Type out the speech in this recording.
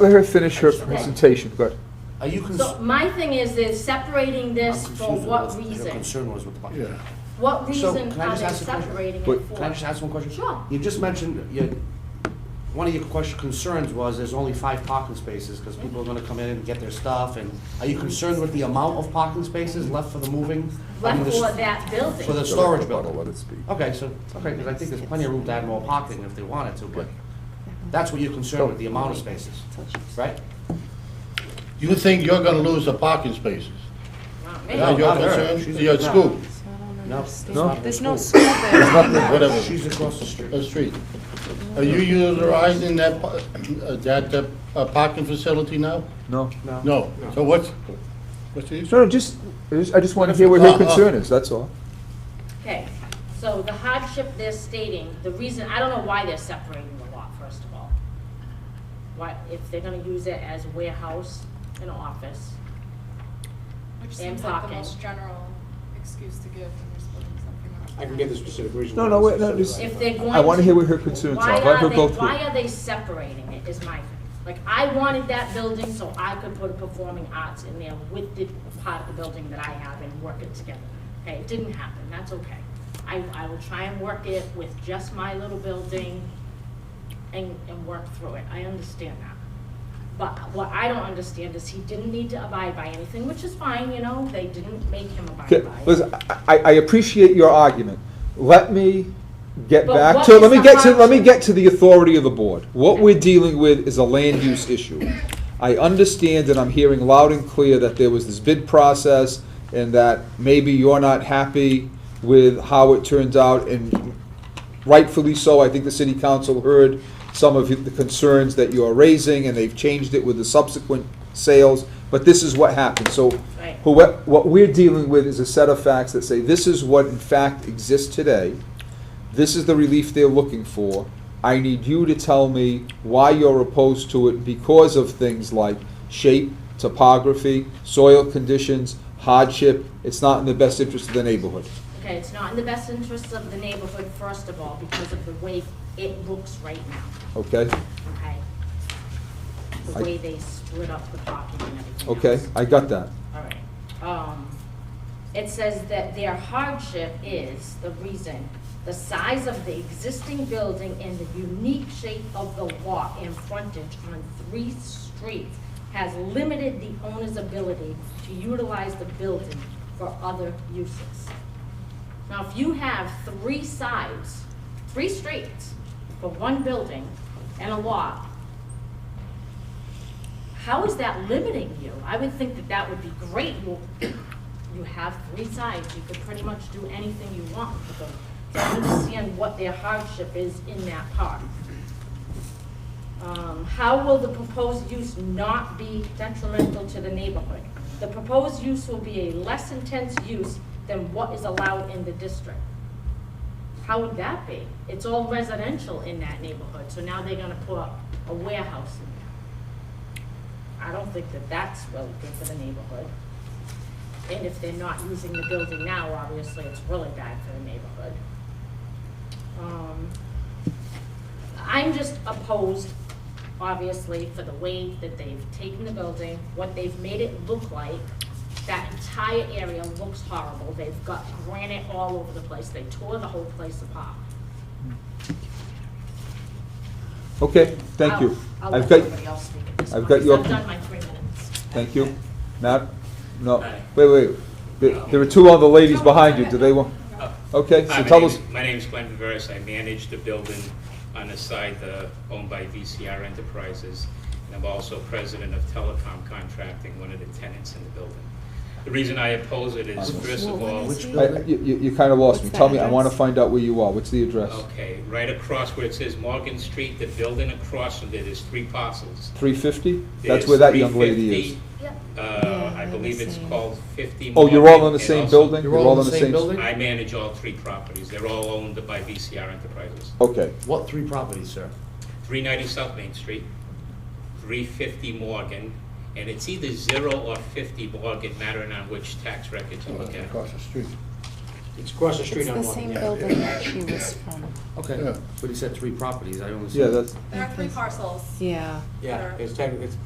Let her finish her Okay. presentation, good. Are you cons- So my thing is, is separating I'm this for confused what with Your reason? concern was with the parking. Yeah. What So, reason can I are just they ask a question? separating it Wait, for? Can I just ask one question? Sure. You just mentioned, you, one of your question, concerns was there's only five parking spaces because people are gonna come in and get their stuff and are you concerned with the amount of parking spaces left for the moving? I mean, Left the for s- that building? For the storage Rebuttal, building? Let it speak. Okay, so, okay, because I think there's plenty of room to add more parking if they wanted to, but that's what you're concerned with, the amount of spaces, right? You think you're gonna lose the parking spaces? Not me. Now No, you're not her. concerned, She's- your no. school, No? No. There's no school there. whatever, She's across the street. the street. Are you utilizing that, pa- uh, that uh, uh, parking facility now? No. No, so what's, what's No, the issue? no, just, I just- I just want to hear what her Uh, uh. concern is, that's all. Okay, so the hardship they're stating, the reason, I don't know why they're separating the lot, first of all. Why, if they're gonna use it as warehouse and office, Which And seems like the parking. most general excuse to give when you're splitting something up. I can get the specific reason. No, why no, it's wait, no, upset just- right if now. they're going to. I wanna hear what her concerns Why are. Let her they- go through. Why are they separating it, is my thing. Like, I wanted that building so I could put performing arts in there with the part of the building that I have and work it together. Okay, it didn't happen, that's okay. I, I will try and work it with just my little building and, and work through it, I understand that. But what I don't understand is he didn't need to abide by anything, which is fine, you know, they didn't make him abide by Okay, it. listen, I, I appreciate your argument. Let me get But back what to, is let me the get to, let me hardship? get to the authority of the board. What we're dealing with is a land use issue. I understand and I'm hearing loud and clear that there was this bid process and that maybe you're not happy with how it turns out and rightfully so, I think the city council heard some of the concerns that you are raising, and they've changed it with the subsequent sales, but this is what happened, so Right. who, what we're dealing with is a set of facts that say, this is what in fact exists today, this is the relief they're looking for, I need you to tell me why you're opposed to it because of things like shape, topography, soil conditions, hardship, it's not in the best interest of the neighborhood. Okay, it's not in the best interests of the neighborhood, first of all, because of the way it looks right now, Okay, okay? I- The way they split up the parking and everything okay, else. I got that. All right. Um, it says that their hardship is the reason, the size of the existing building and the unique shape of the lot and frontage on three streets has limited the owner's ability to utilize the building for other uses. Now, if you have three sides, three streets for one building and a lot, how is that limiting you? I would think that that would be great. You, you have three sides, you could pretty much do anything you want with them. So I understand what their hardship is in that part. Um, how will the proposed use not be detrimental to the neighborhood? The proposed use will be a less intense use than what is allowed in the district. How would that be? It's all residential in that neighborhood, so now they're gonna put a warehouse in there. I don't think that that's really good for the neighborhood. And if they're not using the building now, obviously, it's really bad for the neighborhood. Um, I'm just opposed, obviously, for the way that they've taken the building, what they've made it look like. That entire area looks horrible. They've got granite all over the place. They tore the whole place apart. Okay, thank you. I'll- I'll I've let got, everybody else speak at this I've point, got 'cause your- I've done my three minutes. thank you. Matt, no, wait, wait, there there are two other ladies behind you, do they want? Okay, Hi, so my tell name us, is- My name is Glenn Viveras. I manage the building on the site uh, owned by VCR Enterprises, and I'm also president of Telecom Contracting, one of the tenants in the building. The reason I oppose it is, first of all, Which I- I- you, you- you kind of lost me, What's the tell me, I want to address? find out where you are, what's the address? okay, right across where it says Morgan Street, the building across from there, there's three parcels. Three fifty? That's There's where that young lady is. 350, Yep. Uh, Yeah, I they're believe the it's same. called 50 Oh, you're all in the Morgan, and same also- building? You're all in the same building? I manage all three properties. They're all owned by VCR Enterprises. Okay, What three properties, sir? 390 South Main Street, 350 Morgan, and it's either 0 or 50 Morgan, mattering on which tax records you look at. Across the street. It's across the street It's on the one. same yeah. building that she was from. Okay, Yeah. but he said three properties, I only said. Yeah, that's. There are three parcels. Yeah. Yeah, it's technically, it's